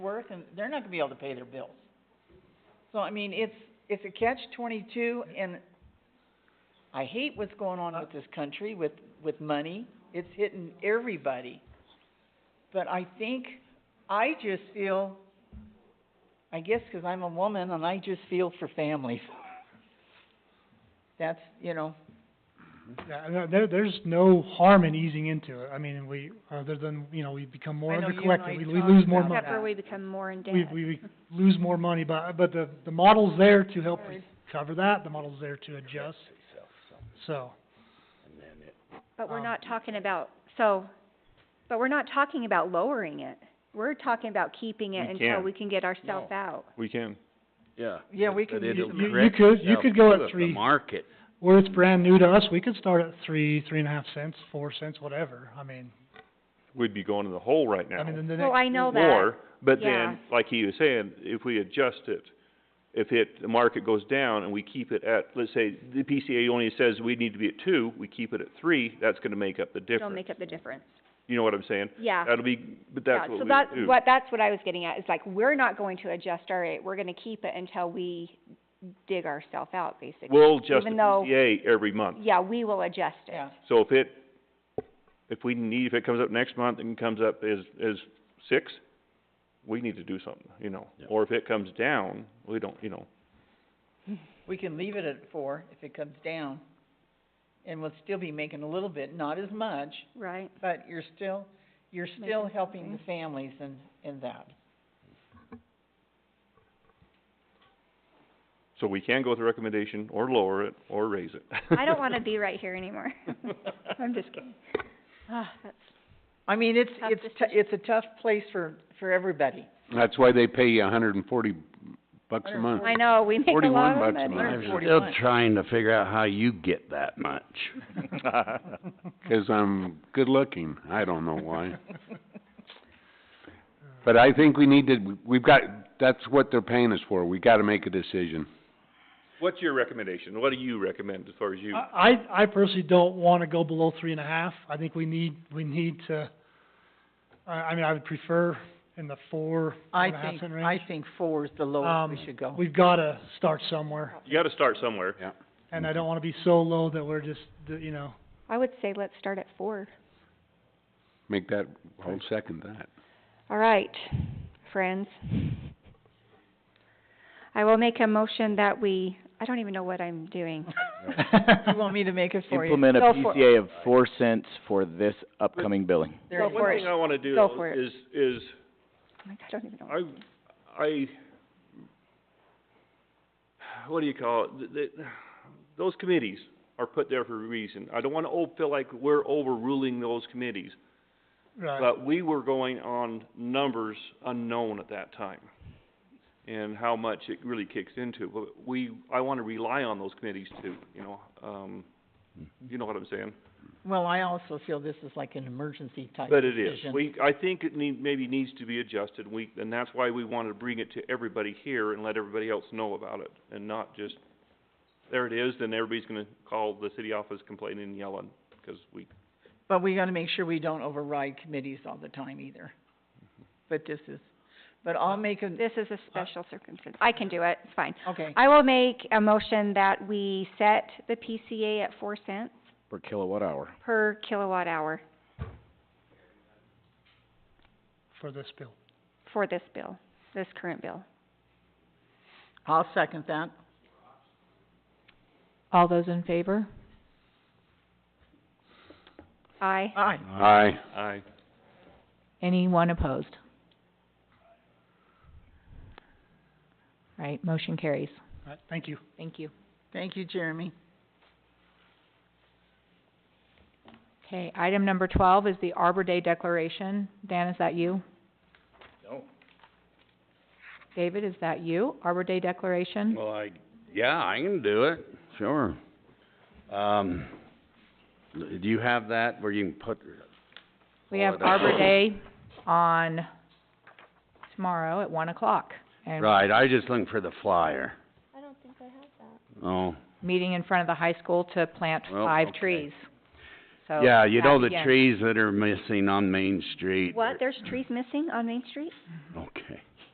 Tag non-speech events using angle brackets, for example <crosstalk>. working, they're not gonna be able to pay their bills. So, I mean, it's, it's a catch twenty-two, and I hate what's going on with this country with, with money. It's hitting everybody. But I think, I just feel, I guess 'cause I'm a woman and I just feel for families. That's, you know, Yeah, and there- there, there's no harm in easing into it, I mean, we, other than, you know, we become more I know you and I undercollected, we, we talked lose more about money. that. Except for we become more We, indebted. we, we lose more money, but, but the, the model's there to help Right. cover that, the model's there to adjust, so. But we're um, not talking about, so, but we're not talking about lowering it. We're talking about keeping it We until can't. we can get ourselves No. out. We can. Yeah. Yeah, we but can it'll use You, you correct could, you itself could go to at The three, market, where it's brand new to us, we could start at three, three and a half cents, four cents, whatever, I mean, We'd be going in the hole right now. I mean, then the Well, next, I know that, Or, but yeah. then, like he was saying, if we adjust it, if it, the market goes down and we keep it at, let's say, the PCA only says we need to be at two, we keep it at three, that's gonna make up the it'll difference. make up the difference. You know what I'm saying? Yeah. That'll be, but Yeah, that's what we so do. that's what, that's what I was getting at, is like, we're not going to adjust our rate, we're gonna keep it until we dig ourselves out, basically. We'll adjust the even though- PCA every month. Yeah, we will adjust it. yeah. So if it, if we need, if it comes up next month and comes up as, as six, we need to do something, you know? Yeah. Or if it comes down, we don't, you know, We can leave it at four if it comes down, and we'll still be making a little bit, not as much, Right? but you're still, you're still Making helping the something. families in, in that. so we can go with a recommendation or lower it or raise it. <laughs> I don't wanna be right here anymore. I'm just kidding. Ah, that's, I mean, it's, Tough it's, tou- it's a tough place for, for everybody. That's why they pay you a hundred and forty bucks a month. I know, we make a 41 lot of bucks a money. month. I'm still 141. trying to figure out how you get that much. Cause I'm good looking, I don't know why. But I think we need to, we've got, that's what they're paying us for, we gotta make a decision. <laughs> What's your recommendation? What do you recommend as far as you? I, I I personally don't wanna go below three and a half, I think we need, we need to, I, I mean, I would prefer in the four, four I and a half think, cent range. I think four is the lowest we Um, should go. We've gotta start somewhere, You gotta start somewhere. and I don't wanna be so low that we're just, the- you know, I would say let's start at four. Make that, I'll second that. All right, friends. I will make a motion that we, I don't even know what I'm doing. <laughs> You want me to make it for you? implement a Go for it. PCA of four cents for this upcoming billing. There you for One it. thing I wanna do Go though for it. is, is Like, I don't even know. I, I, what do you call it, Th- th- those committees are put there for a reason. I don't wanna o- feel like we're overruling those committees, right, but we were going on numbers unknown at that time and how much it really kicks into. But we, I wanna rely on those committees too, you know, um, you know what I'm saying? Well, I also feel this is like an emergency type But it is, decision. we, I think it need, maybe needs to be adjusted, we, and that's why we wanted to bring it to everybody here and let everybody else know about it, and not just, there it is, then everybody's gonna call the city office complaining and yelling, 'cause we, But we gotta make sure we don't override committees all the time either. But this is, but I'll make a, This is a special circumstance. I can do it, it's fine. okay, I will make a motion that we set the PCA at four cents Per kilowatt hour. per kilowatt hour for this bill. for this bill, this current bill. I'll second that. All those in favor? Aye. Aye. Aye. I, Anyone opposed? Right, motion carries. All right, thank you. Thank you. Thank you, Jeremy. Okay, item number twelve is the Arbor Day Declaration. Dan, is that you? No. David, is that you? Arbor Day Declaration? Well, I, yeah, I can do it, sure. Um, do you have that where you can put, Oh, We have Holiday. <laughs> Arbor Day on tomorrow at one o'clock. And right, I just looking for the flyer. Oh. I don't think meeting in front of the high school to plant Well, five okay. trees. I So, have that. Oh, yeah, you know that the begins. trees that are missing on Main Street? What, there's trees missing on Main Street? Okay.